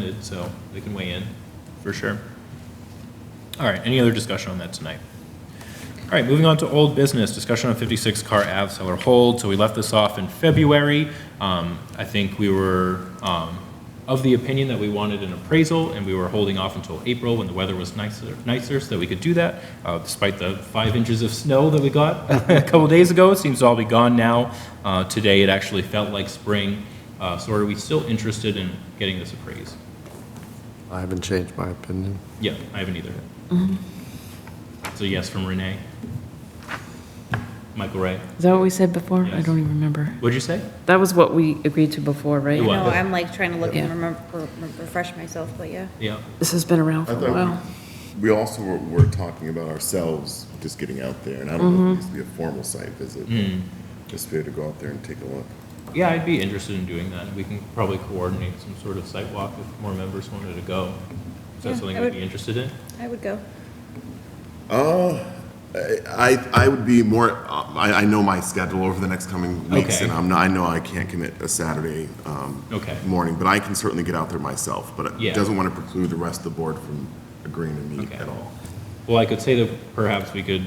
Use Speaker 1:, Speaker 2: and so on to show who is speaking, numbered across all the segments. Speaker 1: it, so they can weigh in, for sure. All right, any other discussion on that tonight? All right, moving on to old business, discussion on 56 Car Ave seller hold. So we left this off in February. Um, I think we were um, of the opinion that we wanted an appraisal, and we were holding off until April when the weather was nicer, nicer, so that we could do that, uh, despite the five inches of snow that we got a couple days ago. It seems to all be gone now. Uh, Today, it actually felt like spring. Uh, So are we still interested in getting this appraised?
Speaker 2: I haven't changed my opinion.
Speaker 1: Yeah, I haven't either. So yes from Renee. Michael Ray.
Speaker 3: Is that what we said before? I
Speaker 1: Yes.
Speaker 3: don't even remember.
Speaker 1: What'd you say?
Speaker 3: That was what we agreed to before,
Speaker 1: It
Speaker 3: right?
Speaker 1: was.
Speaker 4: No, I'm like trying to look and
Speaker 3: Yeah.
Speaker 4: remember, refresh myself, but yeah.
Speaker 1: Yeah.
Speaker 3: This has been around
Speaker 5: I
Speaker 3: for a while.
Speaker 5: thought we we also were, were talking about ourselves just getting out there, and I don't know if it needs to be a formal site visit.
Speaker 1: Hmm.
Speaker 5: but Just be able to go out there and take a look.
Speaker 1: Yeah, I'd be interested in doing that. We can probably coordinate some sort of site walk if more members wanted to go. Is that
Speaker 4: Yeah,
Speaker 1: something
Speaker 4: I
Speaker 1: you'd
Speaker 4: would-
Speaker 1: be interested in?
Speaker 4: I would go.
Speaker 5: Uh, I, I would be more, um, I, I know my schedule over the next coming weeks,
Speaker 1: Okay.
Speaker 5: and I'm not, I know I can't commit a Saturday um,
Speaker 1: Okay.
Speaker 5: morning, but I can certainly get out there myself, but
Speaker 1: Yeah.
Speaker 5: it doesn't want to preclude the rest of the board from agreeing to meet
Speaker 1: Okay.
Speaker 5: at all.
Speaker 1: Well, I could say that perhaps we could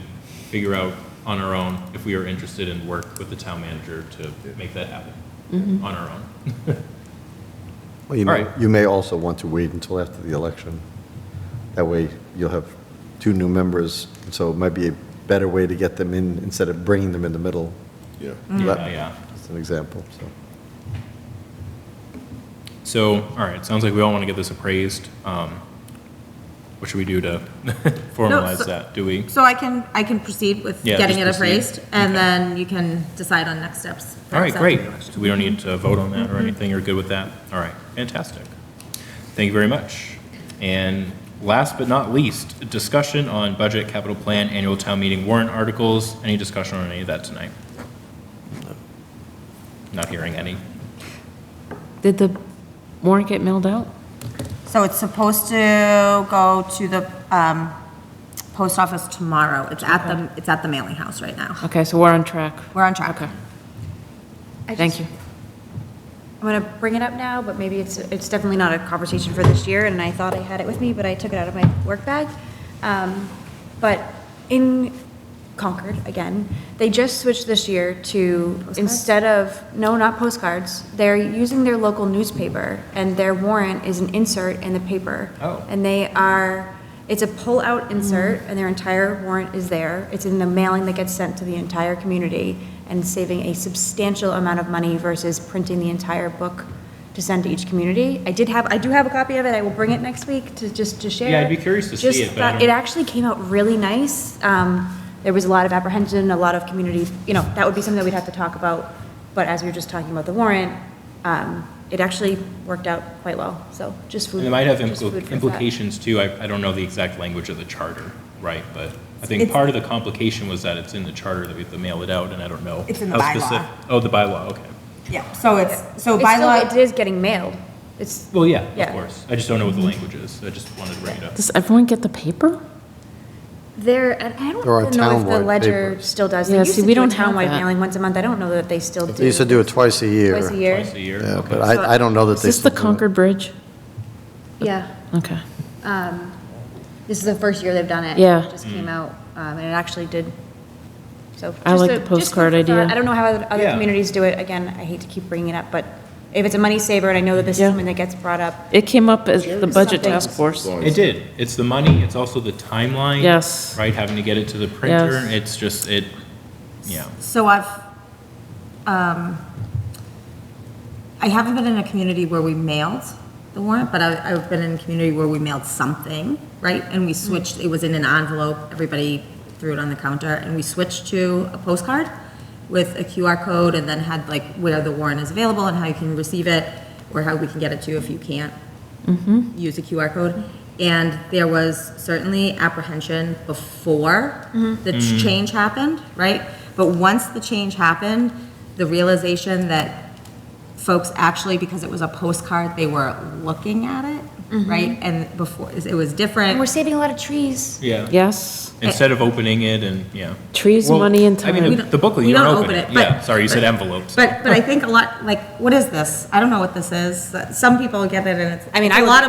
Speaker 1: figure out on our own if we are interested and work with the town manager to make that happen
Speaker 4: Mm-hmm.
Speaker 1: on our own.
Speaker 2: Well, you
Speaker 1: All
Speaker 2: may,
Speaker 1: right.
Speaker 2: you may also want to wait until after the election. That way, you'll have two new members, so it might be a better way to get them in instead of bringing them in the middle.
Speaker 5: Yeah.
Speaker 1: Yeah, yeah.
Speaker 2: That's an example, so.
Speaker 1: So, all right, sounds like we all want to get this appraised. Um, What should we do to
Speaker 6: so-
Speaker 1: formalize that? Do we?
Speaker 6: So I can, I can proceed with
Speaker 1: Yeah,
Speaker 6: getting it
Speaker 1: just proceed.
Speaker 6: appraised, and
Speaker 1: Okay.
Speaker 6: then you can decide on next steps.
Speaker 1: All right,
Speaker 6: Next
Speaker 1: great.
Speaker 6: step.
Speaker 1: So we don't need to vote on that or anything, you're good with that? All right, fantastic. Thank you very much. And last but not least, discussion on budget, capital plan, annual town meeting warrant articles. Any discussion on any of that tonight? Not hearing any.
Speaker 3: Did the warrant get mailed out?
Speaker 6: So it's supposed to go to the um, post office tomorrow. It's at the, it's at the mailing house right now.
Speaker 3: Okay, so we're on track.
Speaker 6: We're on track.
Speaker 3: Okay,
Speaker 4: I
Speaker 3: thank
Speaker 4: just-
Speaker 3: you.
Speaker 4: I'm going to bring it up now, but maybe it's, it's definitely not a conversation for this year, and I thought I had it with me, but I took it out of my work bag. Um, But in Concord, again, they just switched this year to, instead of, no, not postcards, they're using their local newspaper, and their warrant is an insert in the paper.
Speaker 1: Oh.
Speaker 4: And they are, it's a pull-out insert, and their entire warrant is there. It's in the mailing that gets sent to the entire community and saving a substantial amount of money versus printing the entire book to send to each community. I did have, I do have a copy of it. I will bring it next week to, just to share.
Speaker 1: Yeah, I'd be curious to see
Speaker 4: Just
Speaker 1: it, but I
Speaker 4: thought-
Speaker 1: don't-
Speaker 4: It actually came out really nice. Um, There was a lot of apprehension, a lot of community, you know, that would be something that we'd have to talk about. But as we were just talking about the warrant, um, it actually worked out quite well. So just food.
Speaker 1: And it might have
Speaker 4: just food
Speaker 1: impl-
Speaker 4: for thought.
Speaker 1: implications too. I, I don't know the exact language of the charter, right? But I think
Speaker 6: It's-
Speaker 1: part of the complication was that it's in the charter that we have to mail it out and I don't know.
Speaker 6: It's in the
Speaker 1: how
Speaker 6: bylaw.
Speaker 1: specif- Oh, the bylaw, okay.
Speaker 6: Yeah, so it's, so
Speaker 4: It's
Speaker 6: by
Speaker 4: still,
Speaker 6: law,
Speaker 4: it is getting mailed. It's,
Speaker 1: Well, yeah, of
Speaker 4: Yeah.
Speaker 1: course. I just don't know what the language is. I just wanted to bring it up.
Speaker 3: Does everyone get the paper?
Speaker 4: there, and I
Speaker 2: There are
Speaker 4: don't know if the
Speaker 2: townwide
Speaker 4: ledger
Speaker 2: papers.
Speaker 4: still does. They
Speaker 3: Yeah,
Speaker 4: used
Speaker 3: see,
Speaker 4: to
Speaker 3: we
Speaker 4: do a
Speaker 3: don't have
Speaker 4: townwide
Speaker 3: that.
Speaker 4: mailing once a month. I don't know that they still do.
Speaker 2: They used to do it twice a year.
Speaker 4: Twice a year.
Speaker 1: Twice a year.
Speaker 2: Yeah,
Speaker 1: okay.
Speaker 2: but I, I don't know that
Speaker 3: Is
Speaker 2: they
Speaker 3: this
Speaker 2: still
Speaker 3: the
Speaker 2: do it.
Speaker 3: Concord Bridge?
Speaker 4: Yeah.
Speaker 3: Okay.
Speaker 4: Um, This is the first year they've done it.
Speaker 3: Yeah.
Speaker 4: It just came out, um, and it actually did, so.
Speaker 3: I
Speaker 4: just
Speaker 3: like
Speaker 4: a-
Speaker 3: the
Speaker 4: just food
Speaker 3: postcard
Speaker 4: for thought.
Speaker 3: idea.
Speaker 4: I don't know how other other
Speaker 1: Yeah.
Speaker 4: communities do it. Again, I hate to keep bringing it up, but if it's a money saver, and I know that this is
Speaker 3: Yeah.
Speaker 4: something that gets brought up,
Speaker 3: It came up as the Budget Task Force.
Speaker 5: So
Speaker 1: It did. It's the money, it's also the timeline.
Speaker 3: Yes.
Speaker 1: Right, having to get it to the printer.
Speaker 3: Yes.
Speaker 1: It's just, it, yeah.
Speaker 6: so I've, um, I haven't been in a community where we mailed the warrant, but I- I've been in a community where we mailed something, right? And we switched, it was in an envelope, everybody threw it on the counter, and we switched to a postcard with a QR code and then had like where the warrant is available and how you can receive it, or how we can get it to you if you can't use a QR code. And there was certainly apprehension before the ch- change happened, right? But once the change happened, the realization that folks actually, because it was a postcard, they were looking at it, right? And before, it was
Speaker 4: and we're
Speaker 6: different.
Speaker 4: saving a lot of trees.
Speaker 1: Yeah.
Speaker 3: Yes,
Speaker 1: Instead of opening it and, yeah.
Speaker 3: trees,
Speaker 1: Well,
Speaker 3: money, and
Speaker 1: I
Speaker 3: time.
Speaker 1: mean,
Speaker 6: We
Speaker 1: the-
Speaker 6: don't-
Speaker 1: the booklet,
Speaker 6: we
Speaker 1: you don't
Speaker 6: don't
Speaker 1: open
Speaker 6: open
Speaker 1: it.
Speaker 6: it, but-
Speaker 1: Yeah, sorry, you said envelopes.
Speaker 6: But, but I think a lot, like, what is this? I don't know what this is. Some people get it and it's, I mean, I- a lot of